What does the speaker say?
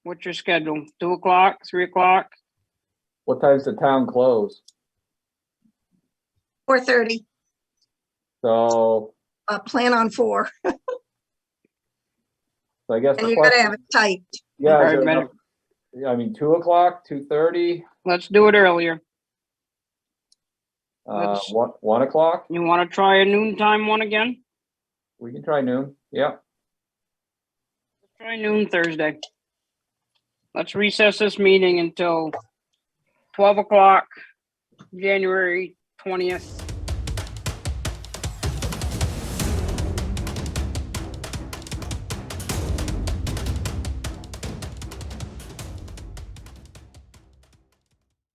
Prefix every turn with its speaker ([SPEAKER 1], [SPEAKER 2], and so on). [SPEAKER 1] What's your schedule? Two o'clock, three o'clock?
[SPEAKER 2] What time's the town close?
[SPEAKER 3] Four thirty,
[SPEAKER 2] So,
[SPEAKER 3] uh, plan on four,
[SPEAKER 2] so I guess
[SPEAKER 3] and
[SPEAKER 2] the
[SPEAKER 3] you gotta have
[SPEAKER 2] question,
[SPEAKER 3] it tight.
[SPEAKER 2] yeah, is
[SPEAKER 1] Right,
[SPEAKER 2] there
[SPEAKER 1] better.
[SPEAKER 2] enough- yeah, I mean, two o'clock, two thirty,
[SPEAKER 1] Let's do it earlier.
[SPEAKER 2] uh,
[SPEAKER 1] Let's-
[SPEAKER 2] one, one o'clock?
[SPEAKER 1] You want to try a noontime one again?
[SPEAKER 2] We can try noon, yeah.
[SPEAKER 1] Try noon Thursday. Let's recess this meeting until twelve o'clock, January twentieth,